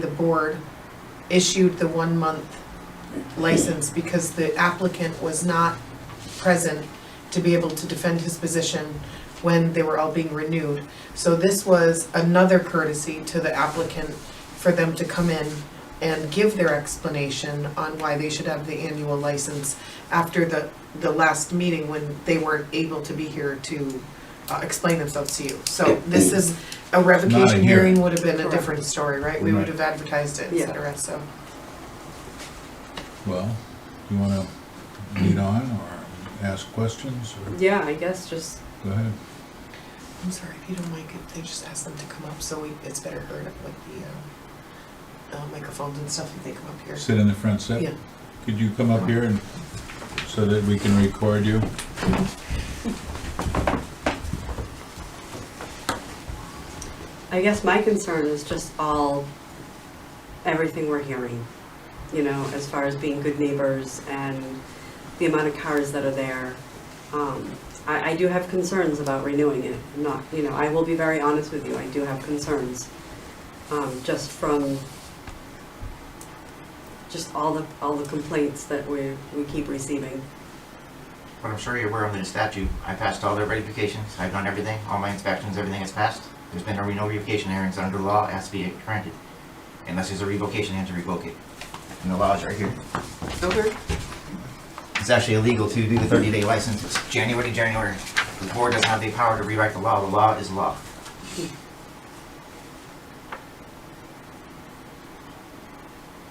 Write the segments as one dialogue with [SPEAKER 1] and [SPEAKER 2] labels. [SPEAKER 1] the board issued the one-month license because the applicant was not present to be able to defend his position when they were all being renewed. So this was another courtesy to the applicant for them to come in and give their explanation on why they should have the annual license after the, the last meeting when they weren't able to be here to uh, explain themselves to you. So this is, a revocation hearing would have been a different story, right? We would have advertised it, et
[SPEAKER 2] Yeah.
[SPEAKER 1] cetera, so.
[SPEAKER 3] Well, you want to lead on or ask questions or
[SPEAKER 2] Yeah, I guess just,
[SPEAKER 3] go ahead?
[SPEAKER 1] I'm sorry, if you don't like it, they just ask them to come up, so we, it's better heard with the, uh, uh, microphones and stuff if they come up here.
[SPEAKER 3] Sit in the front seat.
[SPEAKER 1] Yeah.
[SPEAKER 3] Could you come up here and, so that we can record you?
[SPEAKER 2] I guess my concern is just all, everything we're hearing, you know, as far as being good neighbors and the amount of cars that are there. Um, I, I do have concerns about renewing it, I'm not, you know, I will be very honest with you, I do have concerns. Um, just from, just all the, all the complaints that we, we keep receiving.
[SPEAKER 4] But I'm sure you're aware under the statute, I passed all their verifications, I've done everything, all my inspections, everything has passed. There's been no revocation hearings under the law, it has to be granted. Unless there's a revocation, they have to revoke it. And the law is right here.
[SPEAKER 2] Okay.
[SPEAKER 4] It's actually illegal to do the thirty day license, it's January to January. The board doesn't have the power to rewrite the law, the law is law.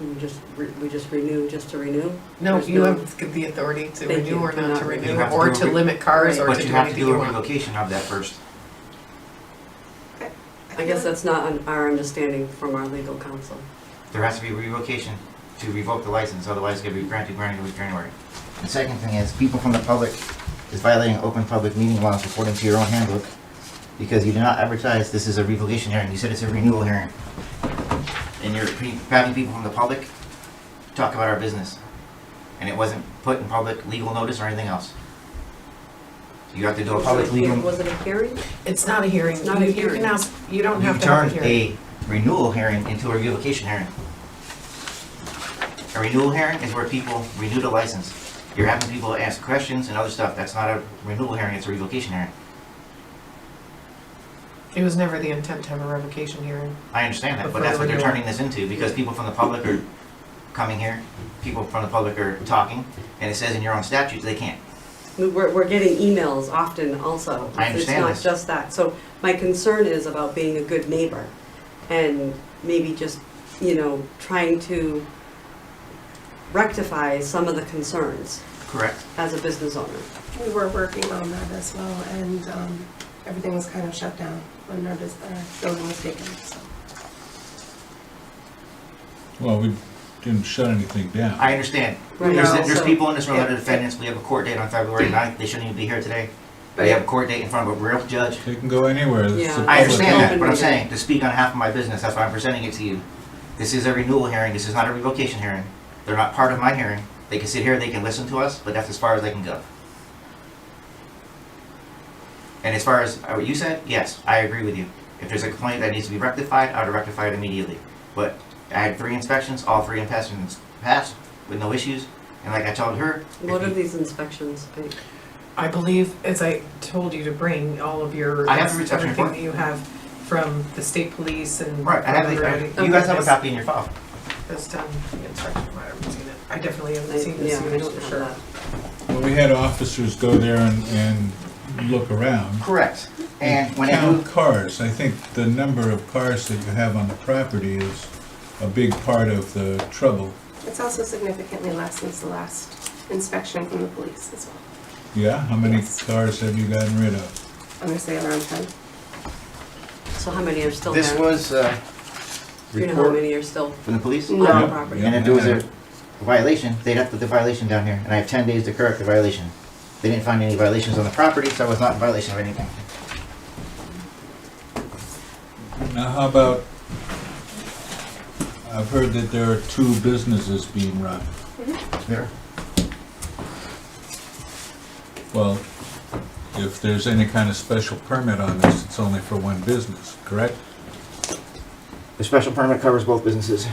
[SPEAKER 2] We just, re- we just renew, just to renew?
[SPEAKER 1] No,
[SPEAKER 2] There's
[SPEAKER 1] you have the authority to
[SPEAKER 2] Thank
[SPEAKER 1] renew
[SPEAKER 2] you.
[SPEAKER 1] or not to
[SPEAKER 2] You
[SPEAKER 1] renew,
[SPEAKER 4] have to
[SPEAKER 1] or
[SPEAKER 4] do
[SPEAKER 1] to
[SPEAKER 4] it.
[SPEAKER 1] limit cars, or
[SPEAKER 4] But
[SPEAKER 1] to
[SPEAKER 4] you
[SPEAKER 1] do
[SPEAKER 4] have to
[SPEAKER 1] anything
[SPEAKER 4] do
[SPEAKER 1] you
[SPEAKER 4] a
[SPEAKER 1] want.
[SPEAKER 4] revocation of that first.
[SPEAKER 2] I guess that's not un- our understanding from our legal counsel.
[SPEAKER 4] There has to be revocation to revoke the license, otherwise it's gonna be granted, granted with January. The second thing is, people from the public is violating open public meeting laws according to your own handbook, because you did not advertise this is a revocation hearing, you said it's a renewal hearing. And you're pre- having people from the public talk about our business, and it wasn't put in public legal notice or anything else. You have to do a public legal.
[SPEAKER 2] Was it a hearing?
[SPEAKER 1] It's not a hearing,
[SPEAKER 2] It's
[SPEAKER 1] you
[SPEAKER 2] not a
[SPEAKER 1] you can
[SPEAKER 2] hearing.
[SPEAKER 1] ask, you don't
[SPEAKER 4] You
[SPEAKER 1] have to have
[SPEAKER 4] turned
[SPEAKER 1] a hearing.
[SPEAKER 4] a renewal hearing into a revocation hearing. A renewal hearing is where people renew the license. You're having people ask questions and other stuff. That's not a renewal hearing, it's a revocation hearing.
[SPEAKER 1] It was never the intent to have a revocation hearing.
[SPEAKER 4] I understand that,
[SPEAKER 1] But
[SPEAKER 4] but
[SPEAKER 1] for
[SPEAKER 4] that's what they're
[SPEAKER 1] renewal.
[SPEAKER 4] turning this into because people from the public are coming here, people from the public are talking, and it says in your own statutes they can't.
[SPEAKER 2] We- We're, we're getting emails often also.
[SPEAKER 4] I understand
[SPEAKER 2] It's
[SPEAKER 4] this.
[SPEAKER 2] not just that. So my concern is about being a good neighbor and maybe just, you know, trying to rectify some of the concerns
[SPEAKER 4] Correct.
[SPEAKER 2] as a business owner.
[SPEAKER 5] We were working on that as well, and um, everything was kind of shut down when our bus- our building was taken, so.
[SPEAKER 3] Well, we didn't shut anything down.
[SPEAKER 4] I understand.
[SPEAKER 2] Right.
[SPEAKER 4] There's,
[SPEAKER 2] No.
[SPEAKER 4] there's
[SPEAKER 2] So-
[SPEAKER 4] people in this room that are
[SPEAKER 5] Yeah.
[SPEAKER 4] defendants. We have a court date on February 9th. They shouldn't even be here today. We have a court date in front of a real judge.
[SPEAKER 3] They can go anywhere. It's the
[SPEAKER 2] Yeah.
[SPEAKER 3] public.
[SPEAKER 4] I understand that, but I'm
[SPEAKER 2] Open meeting.
[SPEAKER 4] saying, to speak on half of my business, that's why I'm presenting it to you. This is a renewal hearing, this is not a revocation hearing. They're not part of my hearing. They can sit here, they can listen to us, but that's as far as they can go. And as far as uh, what you said, yes, I agree with you. If there's a complaint that needs to be rectified, I'd rectify it immediately. But I had three inspections, all three inspections passed with no issues, and like I told her, if
[SPEAKER 2] What are
[SPEAKER 4] you-
[SPEAKER 2] these inspections? I-
[SPEAKER 1] I believe, as I told you, to bring all of your,
[SPEAKER 4] I have the reception
[SPEAKER 1] everything
[SPEAKER 4] report.
[SPEAKER 1] that you have from the state police and.
[SPEAKER 4] Right, I have, the- I- you guys have a copy in your file.
[SPEAKER 1] This done, the inspection, I haven't seen it. I definitely
[SPEAKER 2] I-
[SPEAKER 1] haven't seen
[SPEAKER 2] Yeah,
[SPEAKER 1] this
[SPEAKER 2] I
[SPEAKER 1] unit
[SPEAKER 2] don't
[SPEAKER 1] for
[SPEAKER 2] have
[SPEAKER 1] sure.
[SPEAKER 2] that.
[SPEAKER 3] Well, we had officers go there and, and look around.
[SPEAKER 4] Correct. And when I
[SPEAKER 3] Count
[SPEAKER 4] moved,
[SPEAKER 3] cars. I think the number of cars that you have on the property is a big part of the trouble.
[SPEAKER 5] It's also significantly less since the last inspection from the police as well.
[SPEAKER 3] Yeah, how many
[SPEAKER 5] Yes.
[SPEAKER 3] cars have you gotten rid of?
[SPEAKER 5] I'm gonna say around ten.
[SPEAKER 2] So how many are still there?
[SPEAKER 4] this was, uh,
[SPEAKER 2] Do you know how many are still
[SPEAKER 4] from the police?
[SPEAKER 5] No.
[SPEAKER 2] on the
[SPEAKER 3] Yep,
[SPEAKER 2] property?
[SPEAKER 3] yep.
[SPEAKER 4] And if there was a violation, they'd have to put the violation down here, and I have ten days to correct the violation. They didn't find any violations on the property, so I was not in violation of anything.
[SPEAKER 3] Now, how about, I've heard that there are two businesses being run.
[SPEAKER 4] There.
[SPEAKER 3] Well, if there's any kind of special permit on this, it's only for one business, correct?
[SPEAKER 4] The special permit covers both businesses.